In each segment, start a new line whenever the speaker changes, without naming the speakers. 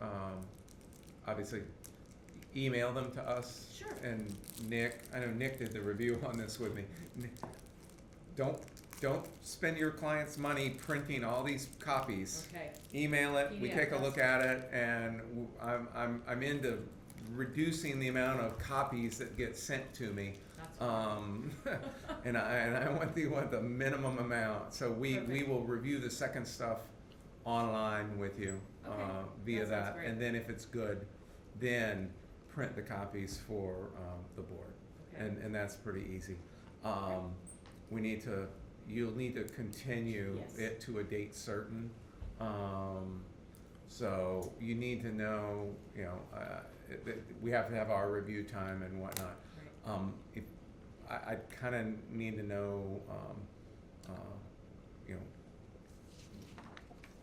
Um, obviously email them to us.
Sure.
And Nick, I know Nick did the review on this with me. Ni- Don't, don't spend your client's money printing all these copies.
Okay,
Email it, we
Yeah,
take a look at it, and w- I'm, I'm, I'm into reducing the amount of copies that get sent to me.
that's,
Um, and I, and I want the, want the minimum amount, so we, we
Perfect.
will review the second stuff online with you, uh,
Okay,
via
that sounds
that,
great.
and then if it's good, then print the copies for, um, the board,
okay,
and, and that's pretty easy. Um, we need to, you'll need to continue
Yes.
it to a date certain, um, so you need to know, you know, uh, it- it, we have to have our review time and whatnot.
great.
Um, if, I, I kinda need to know, um, uh, you know,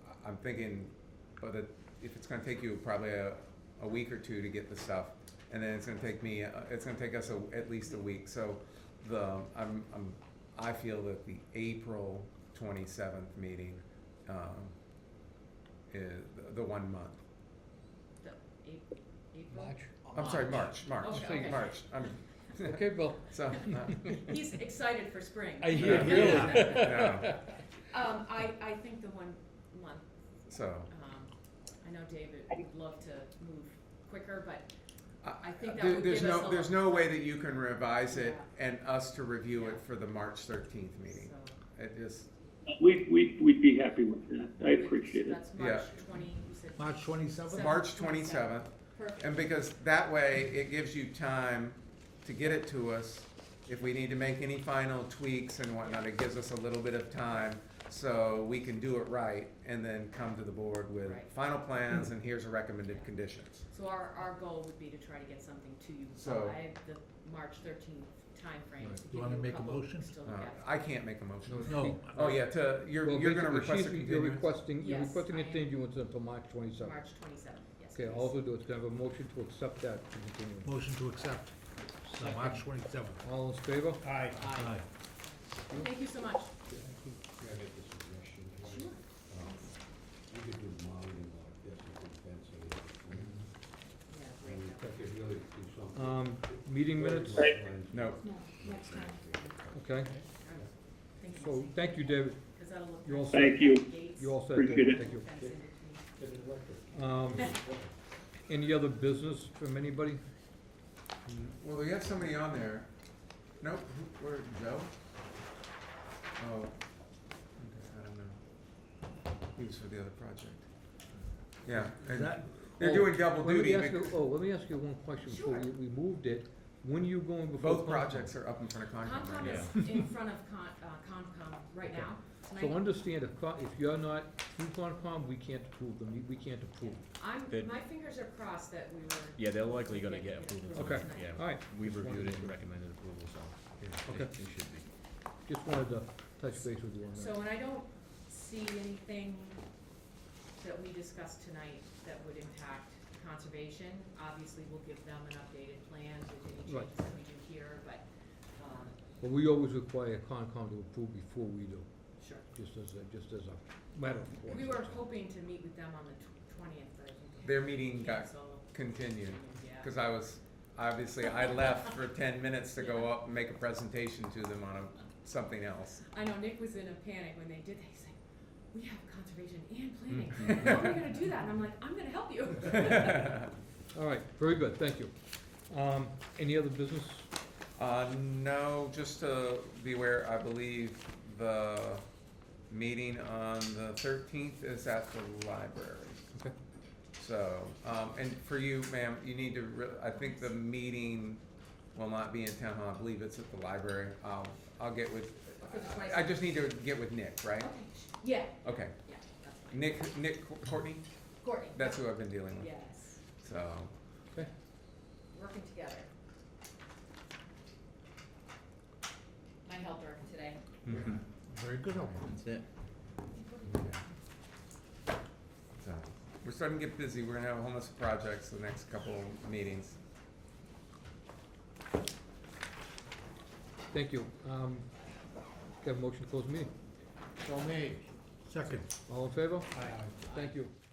I- I'm thinking, but it, if it's gonna take you probably a, a week or two to get the stuff, and then it's gonna take me, uh, it's gonna take us a, at least a week, so the, I'm, I'm, I feel that the April twenty-seventh meeting, um, is the- the one month.
The Ap- April?
March.
I'm sorry, March, March,
Okay, okay.
March, I'm,
Okay, Bill.
so, uh,
He's excited for spring.
I hear
Yeah.
really.
Yeah.
Um, I, I think the one month,
so.
um, I know David would love to move quicker, but I think that
There-
would
there's
give us
no,
a
There's
lot.
no way that you can revise it and us to review it
Yeah.
for the March thirteenth meeting.
so.
It just,
We'd, we'd, we'd be happy with that. I appreciate it.
That's March
Yeah.
twenty, you said.
March twenty-seventh?
Seven-
March
twenty-seventh.
twenty-seventh,
Perfect,
and because that way, it gives you time to get it to us. If we need to make any final tweaks and whatnot, it gives us a little bit of time, so we can do it right, and then come to the board with
Right.
final plans, and here's the recommended conditions.
so our, our goal would be to try to get something to you
So-
by the March thirteenth timeframe.
Right.
to
You
give
wanna
you
make a
couple
motion?
still
Uh,
to get.
I can't make a motion.
No.
Oh, yeah, to, you're,
Well,
you're gonna
basically,
request a
she's- You're
continuance?
requesting, you're
Yes,
requesting a
I am.
continuance until March twenty-seventh.
March twenty-seventh, yes.
Okay,
please.
all we will do is have a motion to accept that continuance.
Motion to accept, So March twenty-seventh.
All in favor?
Aye. Aye.
Thank you so much.
Can I make a suggestion?
Sure.
Um, You could do mounting like this, you could fence it in.
Yeah,
I
great.
mean, that could really do something.
Um, meeting minutes,
No,
No, next time.
okay,
I'm thinking
so,
the same
thank you, David,
thing, 'cause that'll look
you all
nice.
set?
Thank you.
Gates,
you all set,
Appreciate
David,
it.
thank you.
fence in between.
Get it erected.
Um, any other business from anybody?
Hmm. Well, we have somebody on there. Nope, who- where, Joe? Oh, okay, I don't know. He was for the other project. Yeah,
Is
and
that,
they're doing double
Oh, Let me
duty.
ask you-
bec-
Oh, let me ask you one question before we,
Sure.
we moved it, when are you going before?
Both
Concom?
projects are up in front of Concom right
Concom
now.
is in front of Con, uh, Concom right
Okay.
now,
So
tonight.
understand, if, Con- if you're not through Concom, we can't approve them, we can't approve.
I'm,
Good.
my fingers are crossed that we were.
Yeah, they're likely gonna
Yeah,
get approval.
yeah,
from-
Okay.
Yeah,
Alright,
we've
Just wanted
reviewed
to
it and
make-
recommended approval, so. yeah,
Okay.
It it should be.
just wanted to touch base with you on that.
So, and I don't see anything that we discussed tonight that would impact conservation. Obviously, we'll give them an updated plan with any
Right.
changes that we do here, but, um,
But we always require Concom to approve before we do,
sure.
just as a, just as a matter of course.
We were hoping to meet with them on the twentieth, but I think.
Their meeting got
canceled.
continued,
Yeah.
cause I was, obviously, I left for ten minutes to go up and make a presentation to them on a, something else.
I know Nick was in a panic when they did that. He's like, "We have conservation and planning.
Mm-hmm.
How are we going to do that?" And I'm like, "I'm going to help you."
All right, very good, thank you. Um, any other business?
Uh, no, just to be aware, I believe the meeting on the thirteenth is at the library.
Okay.
So, um, and for you, ma'am, you need to, re- I think the meeting will not be in town hall, I believe it's at the library. I'll, I'll get with,
For the
I I just need to get with Nick, right?
okay. Yeah.
Okay,
Yeah. That's fine.
Nick, Nick Courtney,
Courtney.
that's who I've been dealing with,
Yes.
so.
Okay,
Working together. My helper today.
mhm,
very good, Elmer.
That's it.
yeah. So, We're starting to get busy, we're gonna have a whole bunch of projects the next couple meetings.
thank you. Um, got a motion to close the meeting.
So made. Second.
All in favor?
Aye.
Thank you.